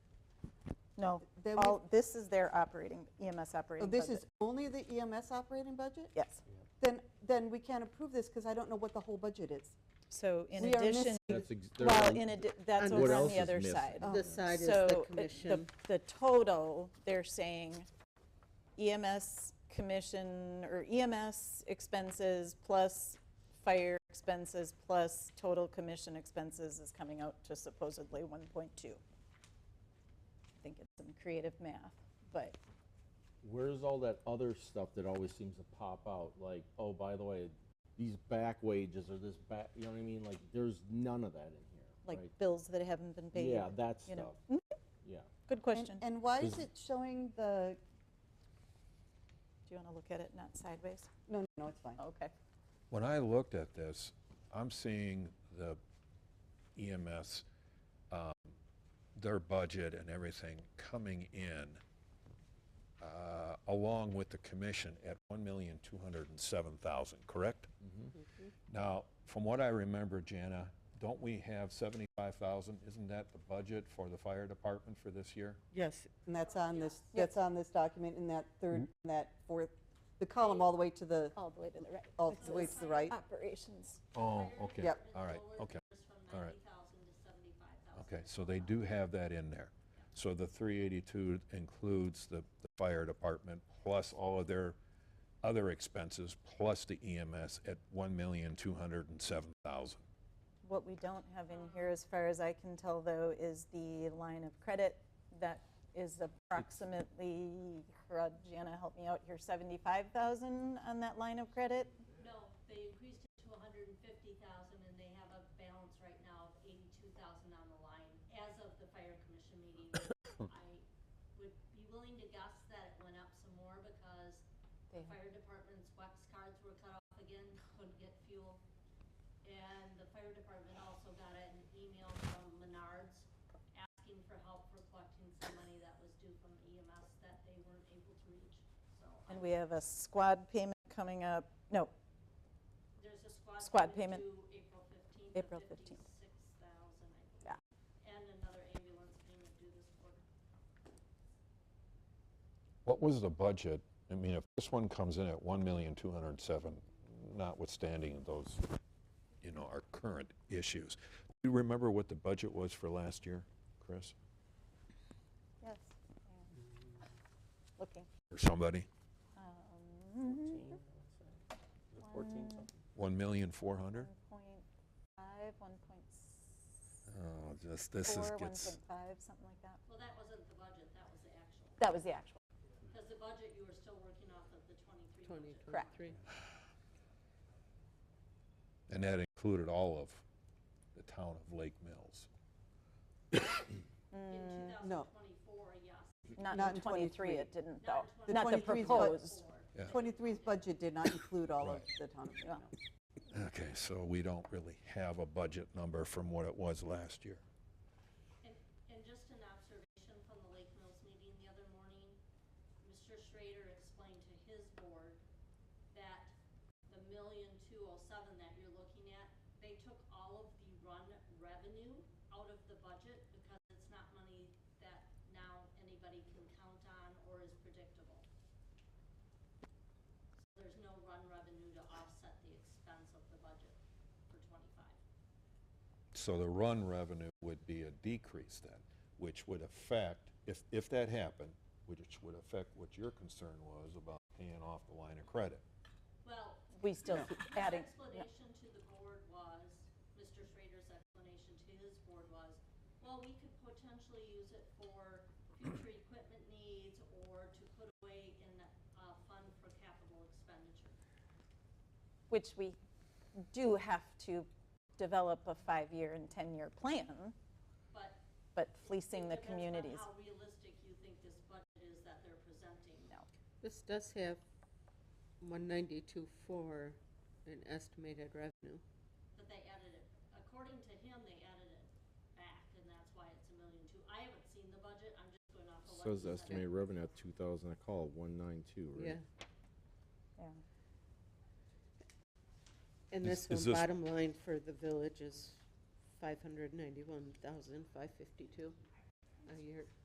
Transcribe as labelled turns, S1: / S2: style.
S1: No,
S2: Then we-
S1: all, this is their operating, EMS
S2: Oh,
S1: operating
S2: this
S1: budget.
S2: is only the EMS operating budget?
S1: Yes.
S2: Then, then we can't approve this because I don't know what the whole budget is.
S1: So in
S2: We are
S1: addition,
S3: That's ex- they're
S1: well,
S3: on-
S1: in addition, that's
S4: And
S3: what
S1: over on
S3: else
S1: the
S3: is
S1: other
S3: missing?
S1: side.
S2: Oh,
S4: The side is
S1: So
S4: the
S1: it-
S4: commission.
S1: The total, they're saying EMS commission or EMS expenses plus fire expenses plus total commission expenses is coming out to supposedly 1.2. I think it's some creative math, but
S3: Where's all that other stuff that always seems to pop out? Like, oh, by the way, these back wages or this back, you know what I mean? Like, there's none of that in here.
S1: like
S3: right?
S1: bills that haven't been paid.
S3: Yeah, that
S1: you know. Mm-hmm.
S3: stuff. Yeah.
S1: Good
S2: And-
S1: question. Do
S2: And why is
S3: Is-
S2: it showing the,
S1: you want to look at it, not sideways?
S2: no, no, no, it's fine.
S1: Okay.
S5: When I looked at this, I'm seeing the EMS, um, their budget and everything coming in uh, along with the commission at 1,207,000, correct? Now, from what I remember, Jana, don't we have 75,000? Isn't that the budget for the fire department for this year?
S4: Yes,
S2: And that's on this, that's on this document in that third, in that fourth, the column all the way to the,
S1: Mm-hmm. All the way to the right.
S2: all the way to the right.
S1: Operations.
S5: Oh, okay.
S2: Yep.
S5: All right, okay. All right.
S6: Okay.
S5: Okay, so they do have that in there. So the 382 includes the the fire department plus all of their other expenses, plus the EMS at 1,207,000.
S1: What we don't have in here, as far as I can tell, though, is the line of credit that is approximately, uh, Jana, help me out here, 75,000 on that line of credit?
S6: No, they increased it to hundred and fifty thousand, and they have a balance right now of eighty-two thousand on the line as of the fire commission meeting. I would be willing to guess that it went up some more because the fire department's wax cards were cut off again, couldn't get fuel. And the fire department also got an email from Menards asking for help for collecting some money that was due from EMS that they weren't able to reach, so. I
S1: And we have a squad payment coming up, no,
S6: There's a squad.
S1: Squad payment.
S6: due April fifteenth.
S1: April 15th.
S6: Fifty-six thousand, I think.
S1: Yeah.
S6: And another ambulance payment due this quarter.
S5: What was the budget? I mean, if this one comes in at 1,207,000, notwithstanding those, you know, our current issues, do you remember what the budget was for last year, Chris,
S1: yes. Looking.
S5: or somebody?
S1: Mhm.
S5: 1,400,000?
S1: 1.5, 1.4,
S5: Oh, just, this is, gets,
S1: 1.5, something like that.
S6: Well, that wasn't the budget, that was the actual.
S1: That was the actual.
S6: Because the budget, you were still working off of the twenty-three budget.
S1: Correct.
S5: and that included all of the town of Lake Mills.
S6: In two
S1: Mm,
S2: No.
S6: thousand twenty-four, yes.
S1: Not
S2: Not
S1: in
S2: in
S1: 23,
S2: 23.
S1: it didn't
S6: Not
S1: though.
S2: The
S6: in
S1: Not the
S2: 23 is what-
S1: proposed.
S2: 23's budget did not include all of the town of Lake
S1: Yeah.
S2: Mills.
S5: Okay, so we don't really have a budget number from what it was last year.
S6: And, and just an observation from the Lake Mills meeting the other morning, Mr. Schrader explained to his board that the million two oh seven that you're looking at, they took all of the run revenue out of the budget because it's not money that now anybody can count on or is predictable. So There's no run revenue to offset the expense of the budget for twenty-five.
S5: So the run revenue would be a decrease then, which would affect, if, if that happened, which would affect what your concern was about paying off the line of credit.
S6: Well,
S1: We still keep adding.
S6: His explanation to the board was, Mr. Schrader's explanation to his board was, well, we could potentially use it for future equipment needs or to put away in a fund for capital expenditure.
S1: which we do have to develop a five-year and 10-year plan,
S6: But
S1: but
S6: it
S1: fleecing the
S6: depends on
S1: communities.
S6: how realistic you think this budget is that they're presenting.
S4: This does have 192.4 in estimated revenue.
S6: But they added it, according to him, they added it back, and that's why it's a million two. I haven't seen the budget, I'm just going off of what he
S3: Says
S6: said.
S4: estimated
S3: estimated revenue at two thousand, I call one nine two,
S4: Yeah.
S3: right?
S1: Yeah.
S4: And this
S5: Is- is
S4: one,
S5: this-
S4: bottom line for the village is 591,552 a year.